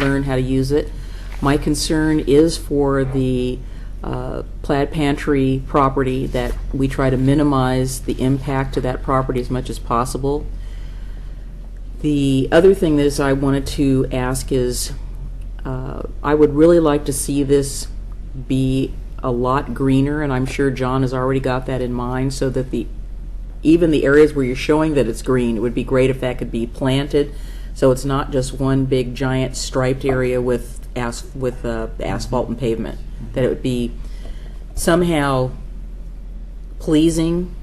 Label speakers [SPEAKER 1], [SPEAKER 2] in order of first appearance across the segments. [SPEAKER 1] learn how to use it. My concern is for the uh, Plaid Pantry property, that we try to minimize the impact to that property as much as possible. The other thing that is I wanted to ask is, uh, I would really like to see this be a lot greener, and I'm sure John has already got that in mind, so that the, even the areas where you're showing that it's green, it would be great if that could be planted, so it's not just one big giant striped area with as, with uh, asphalt and pavement. That it would be somehow pleasing.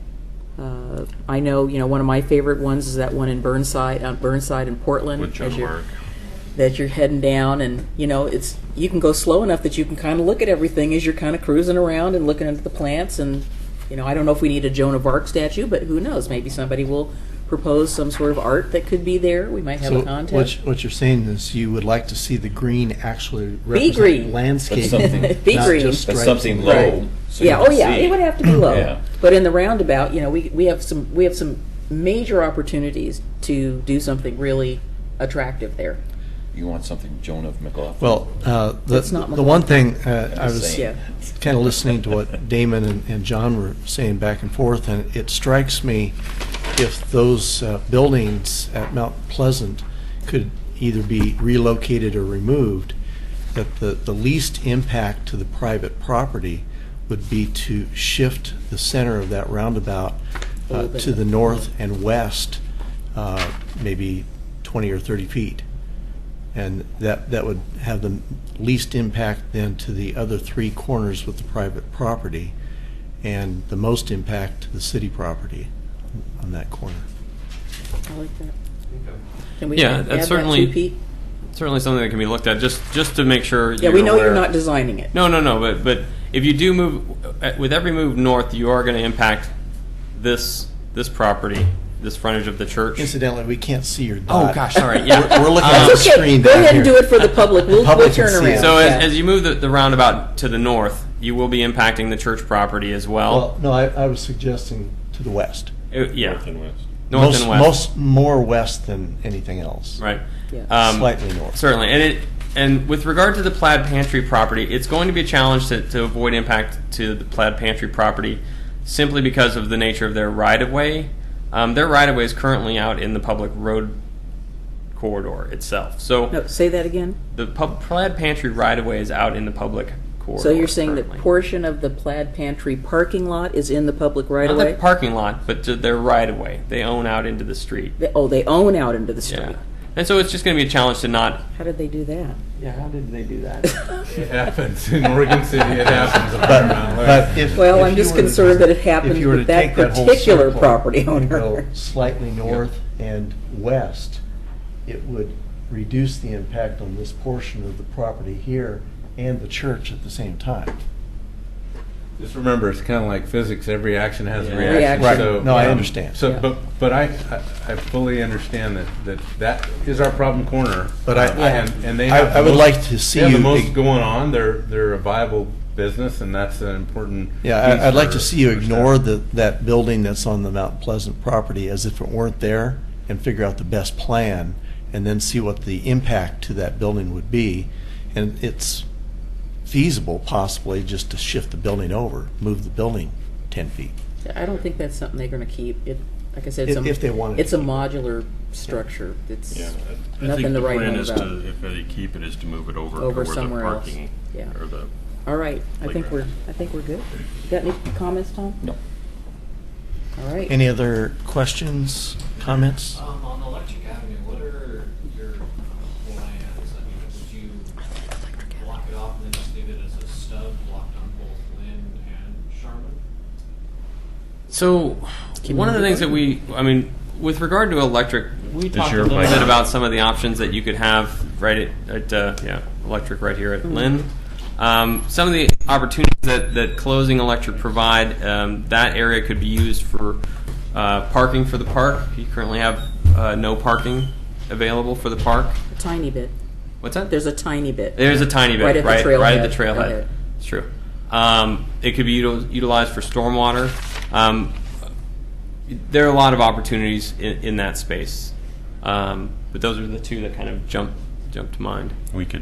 [SPEAKER 1] Uh, I know, you know, one of my favorite ones is that one in Burnside, uh, Burnside in Portland.
[SPEAKER 2] With Joan
[SPEAKER 1] as you're-
[SPEAKER 2] Mark.
[SPEAKER 1] that you're heading down and you know it's you can go slow enough that you can kind of look at everything as you're kind of cruising around and looking into the plants and you know i don't know if we need a joan of arc statue but who knows maybe somebody will propose some sort of art that could be there we might have
[SPEAKER 3] So
[SPEAKER 1] a contest
[SPEAKER 3] what you- what you're saying is you would like to see the green actually
[SPEAKER 1] green.
[SPEAKER 3] represent
[SPEAKER 2] But
[SPEAKER 3] landscape.
[SPEAKER 2] something-
[SPEAKER 1] Be
[SPEAKER 3] not
[SPEAKER 1] green.
[SPEAKER 3] just
[SPEAKER 2] But
[SPEAKER 3] stripes
[SPEAKER 2] something
[SPEAKER 3] and-
[SPEAKER 2] low.
[SPEAKER 1] Right.
[SPEAKER 2] So you
[SPEAKER 1] yeah
[SPEAKER 2] can
[SPEAKER 1] oh yeah
[SPEAKER 2] see.
[SPEAKER 1] it would have to be low
[SPEAKER 2] Yeah.
[SPEAKER 1] but in the roundabout you know we, we have some we have some major opportunities to do something really attractive there
[SPEAKER 2] You want something Joan of McLaughlin.
[SPEAKER 3] Well, uh, the,
[SPEAKER 1] It's not
[SPEAKER 3] the one thing uh, I was
[SPEAKER 1] Yeah.
[SPEAKER 3] kind of listening to what Damon and, and John were saying back and forth, and it strikes me if those uh, buildings at Mount Pleasant could either be relocated or removed, that the, the least impact to the private property would be to shift the center of that roundabout
[SPEAKER 1] A little
[SPEAKER 3] uh,
[SPEAKER 1] bit.
[SPEAKER 3] to the north and west, uh, maybe 20 or 30 feet. And that, that would have the least impact then to the other three corners with the private property, and the most impact to the city property on that corner.
[SPEAKER 1] i like that can we
[SPEAKER 4] Yeah,
[SPEAKER 1] add
[SPEAKER 4] that's
[SPEAKER 1] that too,
[SPEAKER 4] certainly-
[SPEAKER 1] Pete?
[SPEAKER 4] certainly something that can be looked at just just to make sure.
[SPEAKER 1] yeah we know
[SPEAKER 4] aware.
[SPEAKER 1] you're not designing it
[SPEAKER 4] No, no, no. But but if you do move uh, with every move north, you are going to impact this this property, this frontage of the church.
[SPEAKER 3] Incidentally, we can't see your
[SPEAKER 4] Oh
[SPEAKER 3] dot.
[SPEAKER 4] gosh, sorry. Yeah,
[SPEAKER 3] We're- we're looking
[SPEAKER 4] Um,
[SPEAKER 3] at the screen
[SPEAKER 1] Go
[SPEAKER 3] down
[SPEAKER 1] ahead and do
[SPEAKER 3] here.
[SPEAKER 1] it for the public. We'll, we'll
[SPEAKER 3] public can
[SPEAKER 1] turn
[SPEAKER 3] see it.
[SPEAKER 1] around.
[SPEAKER 4] So
[SPEAKER 1] Yeah.
[SPEAKER 4] as, as you move the, the roundabout to the north, you will be impacting the church property as well.
[SPEAKER 3] Well, no, I, I was suggesting to the west.
[SPEAKER 4] Uh, yeah,
[SPEAKER 2] North and west.
[SPEAKER 4] north
[SPEAKER 3] Most-
[SPEAKER 4] and west.
[SPEAKER 3] Most, more west than anything else.
[SPEAKER 4] right.
[SPEAKER 1] Yeah.
[SPEAKER 4] Um,
[SPEAKER 3] Slightly north.
[SPEAKER 4] Certainly, and it and with regard to the plaid pantry property, it's going to be a challenge to, to avoid impact to the plaid pantry property, simply because of the nature of their right of way. Um, their right of way is currently out in the public road corridor itself. So
[SPEAKER 1] no, say that again.
[SPEAKER 4] the pub, plaid pantry right of way is out in the public corridor.
[SPEAKER 1] So you're saying
[SPEAKER 4] currently.
[SPEAKER 1] that portion of the plaid pantry parking lot is in the public right
[SPEAKER 4] not
[SPEAKER 1] of
[SPEAKER 4] the
[SPEAKER 1] way?
[SPEAKER 4] parking lot, but to their right of way, they own out into the street.
[SPEAKER 1] They- Oh, they own out into the street.
[SPEAKER 4] Yeah, and so it's just going to be a challenge to not.
[SPEAKER 1] How did they do that?
[SPEAKER 4] Yeah, how did they do that?
[SPEAKER 5] It happens in Oregon City. It happens. up and
[SPEAKER 3] But,
[SPEAKER 5] down there.
[SPEAKER 3] but if.
[SPEAKER 1] Well,
[SPEAKER 3] if
[SPEAKER 1] I'm
[SPEAKER 3] you
[SPEAKER 1] just
[SPEAKER 3] were to-
[SPEAKER 1] concerned that it
[SPEAKER 3] if
[SPEAKER 1] happened
[SPEAKER 3] you were
[SPEAKER 1] with
[SPEAKER 3] to
[SPEAKER 1] that
[SPEAKER 3] take whole
[SPEAKER 1] particular
[SPEAKER 3] circle
[SPEAKER 1] property
[SPEAKER 3] and
[SPEAKER 1] owner.
[SPEAKER 3] go Slightly north and west, it would reduce the impact on this portion of the property here and the church at the same time.
[SPEAKER 5] Just remember, it's kind of like physics. Every action has a
[SPEAKER 4] Yeah.
[SPEAKER 5] reaction.
[SPEAKER 1] Reaction.
[SPEAKER 5] So,
[SPEAKER 3] Right. No, I
[SPEAKER 5] um,
[SPEAKER 3] understand.
[SPEAKER 5] So,
[SPEAKER 1] Yeah.
[SPEAKER 5] but, but I, I I fully understand that, that that is our problem corner.
[SPEAKER 3] But I-
[SPEAKER 5] Uh, And, and they
[SPEAKER 3] I-
[SPEAKER 5] have. the
[SPEAKER 3] I would
[SPEAKER 5] most-
[SPEAKER 3] like to see
[SPEAKER 5] They have
[SPEAKER 3] you-
[SPEAKER 5] the most going on. They're, they're a viable business and that's an important.
[SPEAKER 3] Yeah, I- I'd like to
[SPEAKER 5] piece
[SPEAKER 3] see you
[SPEAKER 5] for- for
[SPEAKER 3] ignore
[SPEAKER 5] staff.
[SPEAKER 3] the, that building that's on the Mount Pleasant property as if it weren't there and figure out the best plan and then see what the impact to that building would be. And it's feasible possibly just to shift the building over, move the building 10 feet.
[SPEAKER 1] I don't think that's something they're going to keep. It, like I said, it's
[SPEAKER 3] If,
[SPEAKER 1] a,
[SPEAKER 3] if they wanted.
[SPEAKER 1] it's
[SPEAKER 3] to
[SPEAKER 1] a
[SPEAKER 3] keep it.
[SPEAKER 1] modular structure. It's
[SPEAKER 2] Yeah, I-
[SPEAKER 1] Nothing
[SPEAKER 2] I think
[SPEAKER 1] to
[SPEAKER 2] the
[SPEAKER 1] write
[SPEAKER 2] plan
[SPEAKER 1] home
[SPEAKER 2] is
[SPEAKER 1] about.
[SPEAKER 2] to, if they keep it, is to move it over to
[SPEAKER 1] Over
[SPEAKER 2] where the
[SPEAKER 1] somewhere else.
[SPEAKER 2] parking,
[SPEAKER 1] Yeah.
[SPEAKER 2] or the,
[SPEAKER 1] all right. I think
[SPEAKER 2] Playground.
[SPEAKER 1] we're I think we're good. Got any comments, Tom?
[SPEAKER 2] no.
[SPEAKER 1] All right.
[SPEAKER 3] Any other questions, comments?
[SPEAKER 6] Um, on Electric Avenue, what are your plans? I mean, would you block it off and then just leave it as a stub blocked on both Lynn and Sharman?
[SPEAKER 4] So,
[SPEAKER 1] Can
[SPEAKER 4] one
[SPEAKER 1] you
[SPEAKER 4] of the
[SPEAKER 1] do
[SPEAKER 4] things
[SPEAKER 1] that?
[SPEAKER 4] that we, I mean, with regard to electric, we talked a
[SPEAKER 2] your
[SPEAKER 4] little
[SPEAKER 2] mic
[SPEAKER 4] bit
[SPEAKER 2] on?
[SPEAKER 4] about some of the options that you could have right at, at uh, yeah, electric right here at
[SPEAKER 1] Hmm.
[SPEAKER 4] Lynn. Um, some of the opportunities that, that closing electric provide, um, that area could be used for uh, parking for the park. You currently have uh, no parking available for the park.
[SPEAKER 1] a tiny bit.
[SPEAKER 4] What's that?
[SPEAKER 1] There's a tiny bit.
[SPEAKER 4] There's a tiny bit,
[SPEAKER 1] Right
[SPEAKER 4] right?
[SPEAKER 1] at the
[SPEAKER 4] right at the
[SPEAKER 1] trailhead.
[SPEAKER 4] trailhead.
[SPEAKER 1] Okay.
[SPEAKER 4] It's true. Um, it could be util- utilized for stormwater. Um, there are a lot of opportunities in, in that space, um, but those are the two that kind of jump
[SPEAKER 7] jump to mind.
[SPEAKER 4] We could